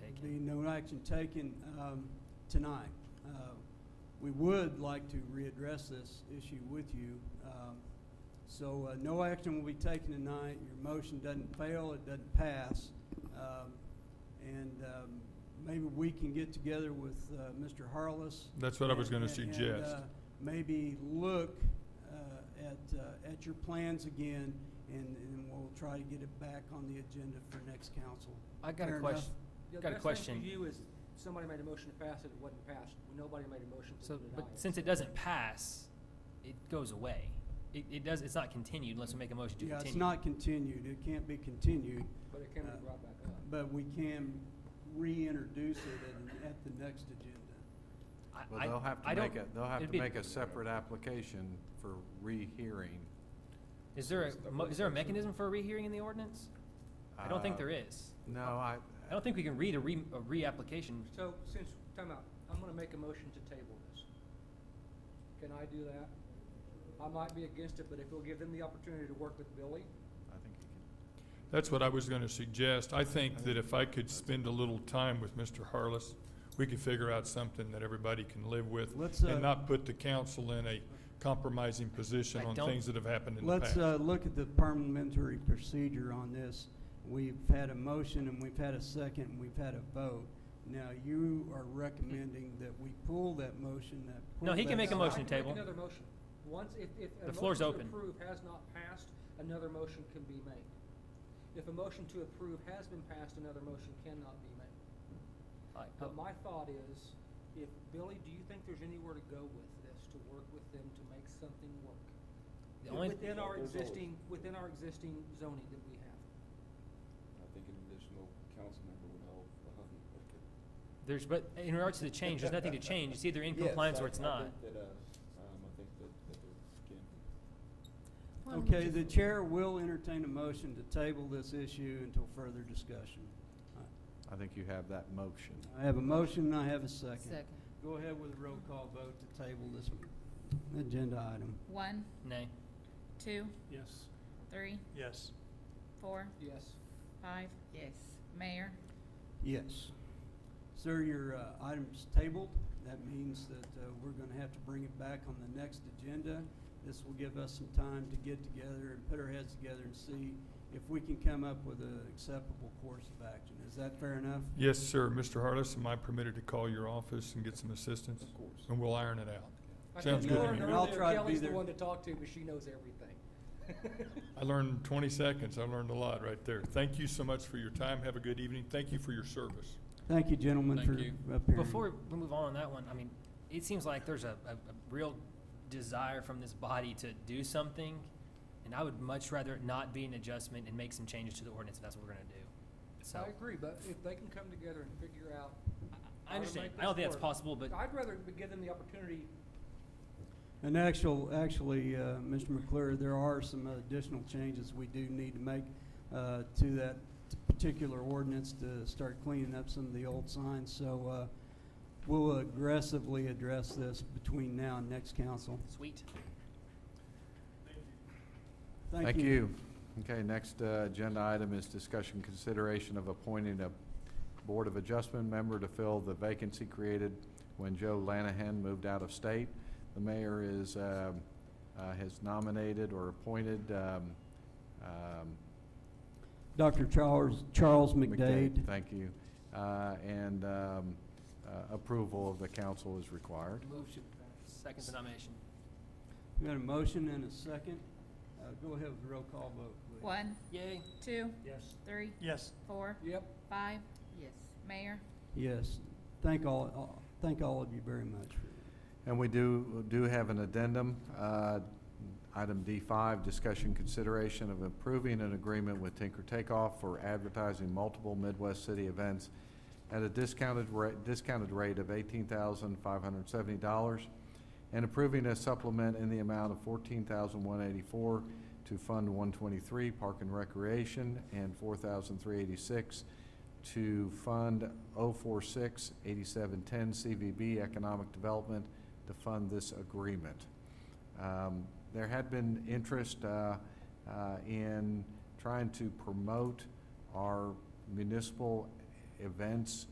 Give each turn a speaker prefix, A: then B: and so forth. A: there'd be no action taken um, tonight. Uh, We would like to readdress this issue with you. Um, So uh, no action will be taken tonight. Your motion doesn't fail, it doesn't pass. Um, And um, maybe we can get together with uh, Mr. Harless.
B: That's what I was
A: and-
B: gonna
A: and,
B: suggest.
A: uh, Maybe look uh, at, uh, at your plans again, and, and we'll try to get it back on the agenda for next council.
C: I got
A: Fair
C: a
A: enough.
C: question.
D: Yeah,
C: Got a
D: The
C: question.
D: best thing for you is, somebody made a motion to pass it, it wasn't passed, nobody made a motion to
C: So,
D: deny
C: but
D: it.
C: since it doesn't pass, it goes away. It, it does, it's not continued unless we make a motion to
A: Yeah,
C: continue.
A: it's not continued, it can't be continued,
D: But it can be
A: uh,
D: brought back up.
A: but we can reintroduce it at, at the next agenda.
C: I-
E: Well,
C: I-
E: they'll have
C: I
E: to make a,
C: don't-
E: they'll have
C: it'd
E: to
C: be-
E: make a separate application for rehearing.
C: Is there a, mo- is there a mechanism for a rehearing in the ordinance? I don't think
E: Uh,
C: there is.
E: No, I,
C: I don't think we can read a re, a reapplication.
D: So, since, time out, I'm gonna make a motion to table this. Can I do that? I might be against it, but if we'll give them the opportunity to work with Billy,
E: I think you
B: That's what I was going to suggest. I think that if I could spend a little time with Mr. Harless, we could figure out something that everybody can live with
A: Let's, uh,
B: and not put the council in a compromising position
C: I
B: on
C: don't-
B: things that have happened in the
A: Let's,
B: past.
A: uh, look at the parliamentary procedure on this. We've had a motion and we've had a second and we've had a vote. Now, you are recommending that we pull that motion, that.
C: No,
A: pull
C: he can
A: that
C: make a
A: second.
D: No, I
C: motion
D: can
C: to table.
D: Make another motion. Once, if, if a
C: The floor's
D: motion
C: open.
D: to approve has not passed, another motion can be made. If a motion to approve has been passed, another motion cannot be made.
C: Like,
D: But my thought is, if, Billy, do you think there's anywhere to go with this, to work with them to make something work?
C: The only,
D: Within our existing, within our existing zoning that we have.
F: I think an additional council member would help.
C: there's, but in regards to the change, there's nothing to change. It's either in compliance or it's not.
F: I think that, uh, um, I think that, that there can be.
A: Okay, the chair will entertain a motion to table this issue until further discussion.
E: can, I think you have that motion.
A: I have a motion and I have a second.
G: Second.
A: Go ahead with a roll call vote to table this agenda item.
G: One,
C: Nay.
G: two,
H: Yes.
G: three,
H: Yes.
G: four,
D: Yes.
G: five. Yes. Mayor,
A: Yes. Sir, your uh, item's tabled. That means that uh, we're going to have to bring it back on the next agenda. This will give us some time to get together and put our heads together and see if we can come up with an acceptable course of action. Is that fair enough?
B: Yes, sir. Mr. Harless, am I permitted to call your office and get some assistance?
F: Of course.
B: And we'll iron it out.
D: I
B: Sounds
D: think
B: good to
D: Lauren
B: me.
A: And I'll
D: earlier,
A: try to be
D: Kelly's the
A: there.
D: one to talk to, but she knows everything.
B: I learned 20 seconds. I learned a lot right there. Thank you so much for your time. Have a good evening. Thank you for your service.
A: Thank you, gentlemen,
B: Thank
A: for
B: you.
A: appearing.
C: Before we move on on that one, I mean, it seems like there's a, a, a real desire from this body to do something, and I would much rather it not be an adjustment and make some changes to the ordinance if that's what we're gonna do. So,
D: I agree, but if they can come together and figure out.
C: I
D: how to
C: understand.
D: make
C: I don't
D: this
C: think that's
D: work,
C: possible, but
D: I'd rather be- give them the opportunity,
A: And actual, actually, uh, Mr. McClure, there are some additional changes we do need to make uh, to that particular ordinance to start cleaning up some of the old signs. So uh, we'll aggressively address this between now and next council.
C: sweet.
E: Thank you. Okay, next uh, agenda item is discussion consideration of appointing a Board of Adjustment member to fill the vacancy created when Joe Lanahan moved out of state. The mayor is, um, uh, has nominated or appointed um, um,
A: Dr. Charles, Charles
E: McDade,
A: McDade.
E: Thank you. Uh, And um, uh, approval of the council is required.
C: Move to second the nomination.
A: We got a motion and a second. Uh, Go ahead with the roll call vote, please.
G: one,
C: Yay.
G: two,
H: Yes.
G: three,
H: Yes.
G: four,
D: yep,
G: five. Yes. Mayor,
A: Yes. Thank all- all, thank all of you very much for that.
E: And we do, do have an addendum. Uh, Item D5, discussion consideration of improving an agreement with Tinker Takeoff for advertising multiple Midwest city events at a discounted rate, discounted rate of eighteen thousand five hundred seventy dollars and approving a supplement in the amount of fourteen thousand one eighty-four to Fund one twenty-three Park and Recreation and four thousand three eighty-six to Fund 046 8710 CVB Economic Development to fund this agreement. Um, There had been interest uh, uh, in trying to promote our municipal events